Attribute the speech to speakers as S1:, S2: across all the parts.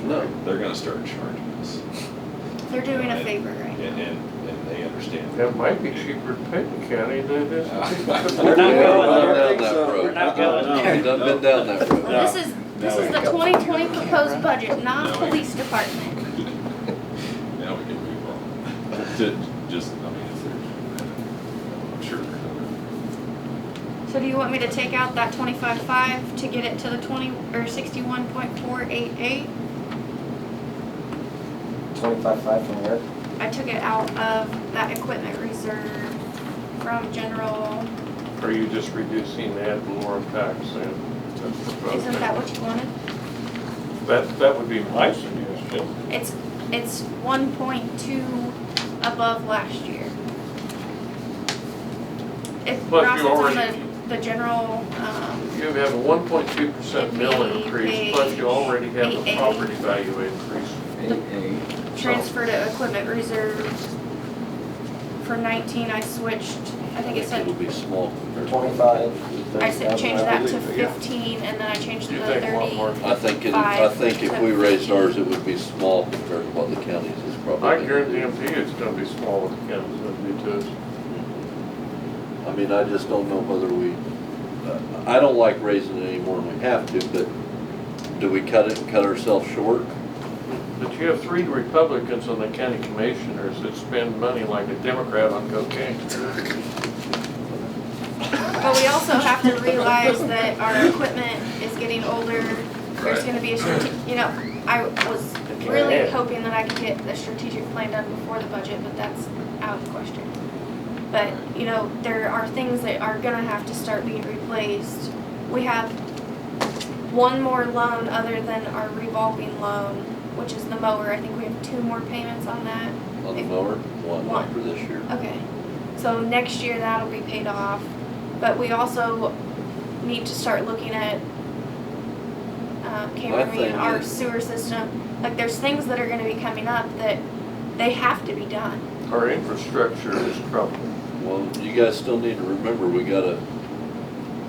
S1: No, they're gonna start charging us.
S2: They're doing a favor right
S1: And,
S2: now.
S1: and, and they understand.
S3: It might be cheaper to pay the county than it is. to-
S4: We're not going
S5: We've gone
S4: there.
S5: down that
S4: We're
S5: road.
S4: not going there.
S5: We've done been down that road.
S4: No.
S2: Well, this is, this
S1: No.
S2: is the twenty twenty proposed budget, not police department.
S1: Now we can move on. To, just, I mean, it's their, I'm sure they're gonna.
S2: So do you want me to take out that twenty-five five to get it to the twenty, or sixty-one point four eight eight?
S4: Twenty-five, five from where?
S2: I took it out of that equipment reserve from general,
S3: Are you just reducing the ad valorem tax then?
S2: isn't that what you wanted?
S3: That, that would be my suggestion.
S2: It's, it's one point two above last year. It,
S3: Plus,
S2: Ross,
S3: you
S2: it's on
S3: already-
S2: the, the general, um,
S3: You have a one point two percent mill
S2: It'd be
S3: increase, plus you already have
S2: page
S3: the
S2: AA.
S3: property value increase.
S4: Eight,
S2: transfer to equipment reserve. For nineteen, I switched, I think it
S5: It'll
S2: said,
S5: be small
S4: eight.
S5: compared to.
S4: Twenty-five.
S2: I said change that to
S4: believe, yeah.
S2: fifteen, and then I changed it
S3: You
S2: to
S3: think a lot more.
S2: thirty.
S5: I think, it- I think if we raised ours, it would be small compared to what the county's is probably.
S3: I guarantee it's gonna be smaller than counties would be to us.
S5: I mean, I just don't know whether we, I don't like raising it any more than we have to, but do we cut it and cut ourselves short?
S3: But you have three Republicans on the county commissioners that spend money like a Democrat on cocaine.
S2: But we also have to realize that our equipment is getting older, there's
S1: Right.
S2: gonna be a strate- you know, I was
S4: Okay.
S2: really hoping that I could get the strategic plan done before the budget, but that's out of the question. But, you know, there are things that are gonna have to start being replaced. We have one more loan other than our revolving loan, which is the mower, I think we have two more payments on that.
S5: On the mower, one
S2: One.
S5: for this year.
S2: Okay, so next year that'll be paid off, but we also need to start looking at, um, Cameron Re
S5: thing
S2: and our
S5: is-
S2: sewer system. Like, there's things that are gonna be coming up that they have to be done.
S3: Our infrastructure is troubled.
S5: Well, you guys still need to remember, we got a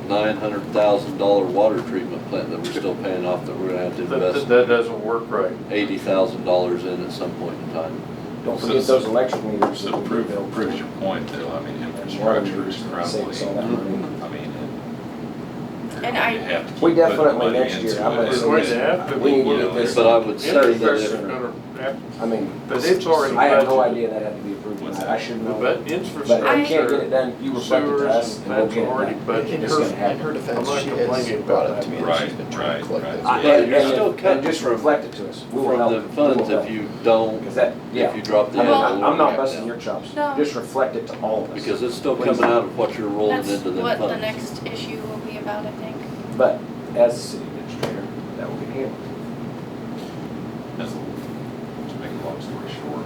S5: nine hundred thousand dollar water treatment plant that we're still paying off that we're gonna have to
S3: That- That,
S5: invest
S3: that doesn't work right.
S5: eighty thousand dollars in at some point in time.
S4: Don't forget those electric meters. that
S1: So
S4: we
S1: prove,
S4: built.
S1: proves your point though, I mean, infrastructure is
S4: Saves all
S1: probably,
S4: that money.
S1: I mean, and.
S2: And
S1: you
S2: I,
S1: have to
S4: We
S1: keep putting
S4: definitely
S1: money
S4: next year,
S1: into
S4: I'm
S1: it.
S4: gonna
S3: It's going to have to
S4: We
S3: be.
S4: can get it this.
S5: But I would say that
S3: Infrastructure
S5: if,
S3: gonna have-
S4: I mean,
S3: But it's already
S4: I had no
S3: budgeted.
S4: idea that had to be approved
S1: What's
S4: tonight.
S1: that?
S4: I should know.
S3: But
S4: But if you can't get
S3: infrastructure,
S4: it done, you reflect it to us
S3: sewers,
S4: and we'll
S3: that's
S4: get it
S3: already
S4: done.
S3: budgeted.
S4: It's gonna
S6: In
S4: happen.
S6: her
S3: I'm
S6: defense,
S3: not
S6: she
S3: complaining
S6: has
S3: about
S6: brought
S3: that.
S6: up to me that she's
S1: Right,
S6: been trying
S1: right,
S6: to collect
S1: right.
S6: that.
S5: I-
S4: And-
S5: But
S4: and
S5: you're
S4: if-
S5: still
S4: and
S5: cutting
S4: Just
S5: from-
S4: reflect it to us. We will
S5: From
S4: help.
S5: the funds, if you don't,
S4: Because that,
S5: if
S4: yeah.
S5: you drop
S4: I
S5: the
S4: mean,
S5: handle.
S4: I'm I'm not
S5: we'll
S4: busting
S5: back
S4: your chops.
S2: No.
S4: Just reflect it to all of
S5: down.
S4: us.
S5: Because it's still
S4: Please.
S5: coming out of what you're rolling
S2: that's
S5: into the
S2: what the
S5: funds.
S2: next issue will be about, I think.
S4: But as a city administrator, that will be handled.
S1: That's, to make a long story short,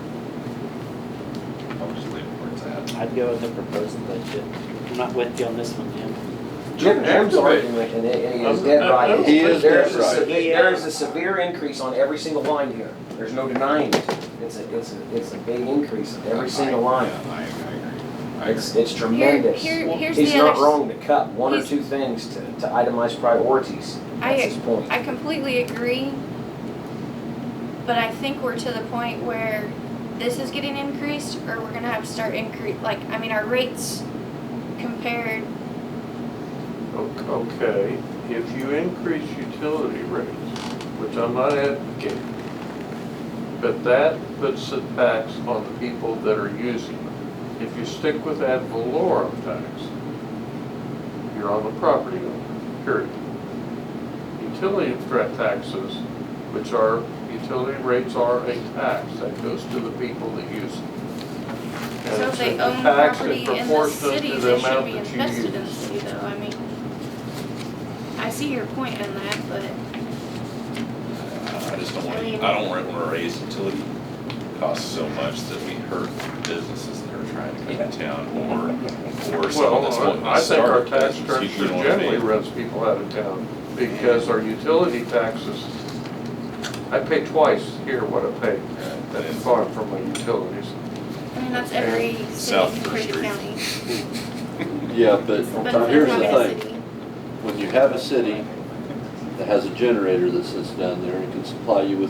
S1: I'll just leave it where it's at.
S6: I'd go with the proposed budget. I'm not with you on this one, Jim.
S4: Jim, Jim's
S3: Activate.
S4: argument, and it- and he is dead
S3: I'm- I'm-
S4: right.
S5: He is
S4: There is
S5: dead
S4: a
S5: right.
S4: severe- There is a severe increase on every single line here. There's no denying it. It's a, it's a, it's a big increase on every single line.
S1: Yeah, I, I agree. I agree.
S4: It's, it's
S2: Here,
S4: tremendous.
S2: here, here's
S4: He's
S2: the
S4: not
S2: other,
S4: wrong to cut one or
S2: He's-
S4: two things to, to itemize priorities.
S2: I-
S4: That's his point.
S2: I completely agree. But I think we're to the point where this is getting increased, or we're gonna have to start increase, like, I mean, our rates compared
S3: Okay, if you increase utility rates, which I'm not advocating, but that puts a tax on the people that are using it. If you stick with ad valorem tax, you're on the property owner, period. Utility threat taxes, which are, utility rates are a tax that goes to the people that use it.
S2: So
S3: And it's
S2: if they
S3: a
S2: own
S3: tax
S2: property in
S3: that's
S2: the
S3: proportionate to
S2: city,
S3: the
S2: they should
S3: amount
S2: be
S3: that you
S2: invested in the
S3: use.
S2: city though, I mean. I see your point in that, but
S1: I just don't want, I don't want to raise utility costs so much that we hurt the businesses that are trying to come to town or, or someone that's wanting
S3: Well, I
S1: to
S3: think our
S1: start. a
S3: tax
S1: business, you-
S3: structure
S1: you know what I
S3: generally
S1: mean?
S3: runs people out of town because our utility taxes, I pay twice here what I pay
S1: Yeah,
S3: at the
S1: it's
S3: farm for my utilities.
S2: I mean, that's every
S1: South
S2: city in Craig
S1: First
S2: County.
S5: Yeah, but
S2: But if
S5: here's
S2: there's
S5: the
S2: not
S5: thing.
S2: a city,
S5: when you have a city that has a generator that sits down there and can supply you with